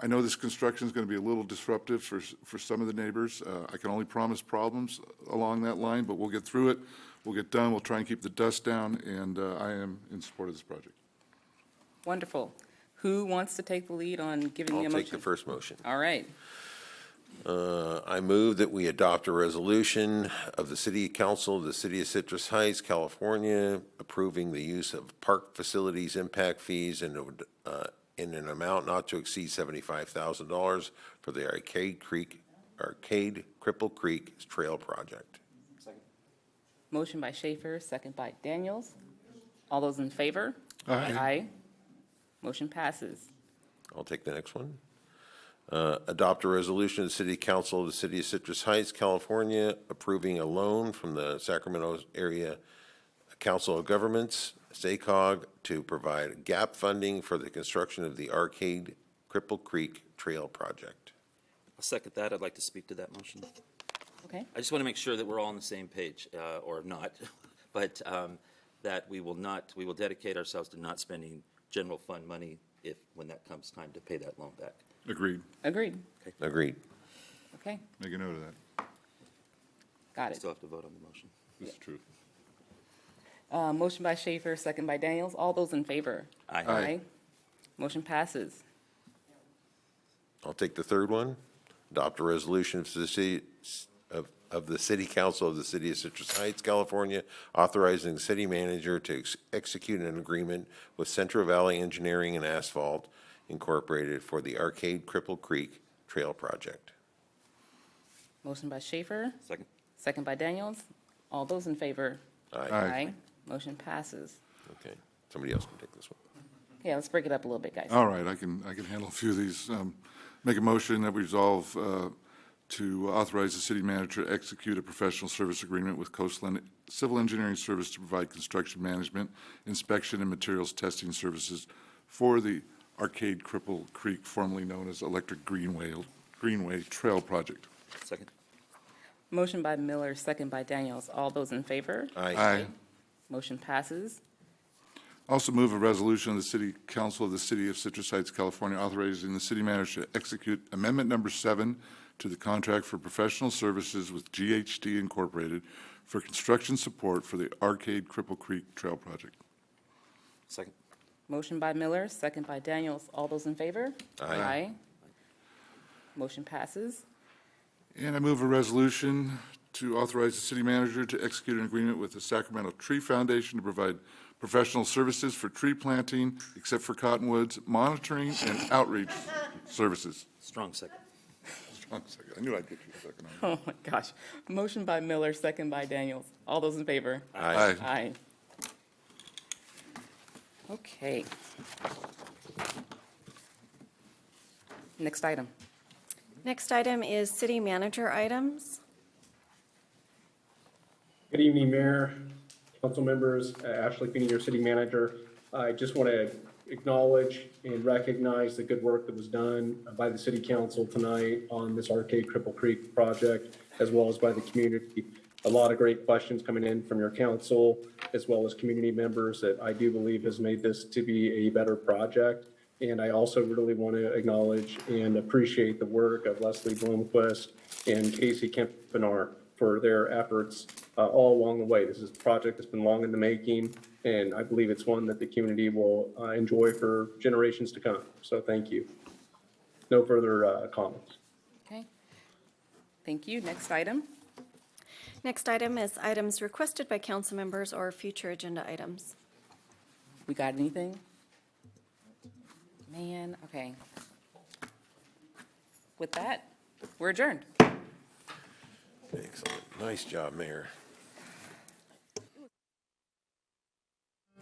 I know this construction is going to be a little disruptive for, s- for some of the neighbors. Uh, I can only promise problems along that line, but we'll get through it. We'll get done. We'll try and keep the dust down, and uh, I am in support of this project. Wonderful. Who wants to take the lead on giving the I'll motion? take the first motion. All right. Uh, I move that we adopt a resolution of the City Council of the City of Citrus Heights, California, approving the use of park facilities impact fees in, uh, in an amount not to exceed seventy-five thousand dollars for the Arcade Creek, Arcade Cripple Creek Trail Project. Motion by Schaefer, second by Daniels. All those in favor? Aye. Motion passes. I'll take the next one. Uh, Adopt a resolution of the City Council of the City of Citrus Heights, California, approving a loan from the Sacramento Area Council of Governments, SACOG, to provide gap funding for the construction of the Arcade Cripple Creek Trail Project. I'll second that. I'd like to speak to that motion. Okay, I just want to make sure that we're all on the same page, uh, or not, but um, that we will not, we will dedicate ourselves to not spending general fund money if, when that comes time to pay that loan back. Agreed. agreed. Agreed. Okay, Make a note of that. got it. Still have to vote on the motion. This is true. Uh, Motion by Schaefer, second by Daniels. All those in favor? Aye. Motion passes. I'll take the third one. Adopt a resolution of the city, of, of the city council of the city of Citrus Heights, California, authorizing the city manager to ex- execute an agreement with Central Valley Engineering and Asphalt Incorporated for the Arcade Cripple Creek Trail Project. Motion by Schaefer, Second. second by Daniels. All those in favor? Aye. Motion passes. Okay, somebody else can take this one. Okay, let's break it up a little bit, guys. All right, I can, I can handle a few of these. Um, Make a motion that we resolve uh, to authorize the city manager to execute a professional service agreement with Coastland Civil Engineering Service to provide construction management, inspection, and materials testing services for the Arcade Cripple Creek, formerly known as Electric Greenway, Greenway Trail Project. Second. Motion by Miller, second by Daniels. All those in favor? Motion passes. Also move a resolution of the City Council of the City of Citrus Heights, California, authorizing the city manager to execute Amendment Number Seven to the contract for professional services with GHD Incorporated for construction support for the Arcade Cripple Creek Trail Project. Second. Motion by Miller, second by Daniels. All those in favor? Aye. Motion passes. And I move a resolution to authorize the city manager to execute an agreement with the Sacramento Tree Foundation to provide professional services for tree planting, except for cottonwoods, monitoring, and outreach services. Strong second. Strong second. I knew I'd get you a second on that. Oh, my gosh. Motion by Miller, second by Daniels. All those in favor? Aye. Aye. Okay. Next item. Next item is city manager items. Good evening, Mayor, council members, Uh, Ashley Feeney, your city manager. I just want to acknowledge and recognize the good work that was done by the city council tonight on this Arcade Cripple Creek project, as well as by the community. A lot of great questions coming in from your council, as well as community members that I do believe has made this to be a better project. And I also really want to acknowledge and appreciate the work of Leslie Bloomquist and Casey Kempinar for their efforts uh, all along the way. This is a project that's been long in the making, and I believe it's one that the community will uh, enjoy for generations to come. So thank you. No further uh, comments. Okay. Thank you. Next item. Next item is items requested by council members or future agenda items. We got anything? Man, okay. With that, we're adjourned. Excellent. Nice job, Mayor.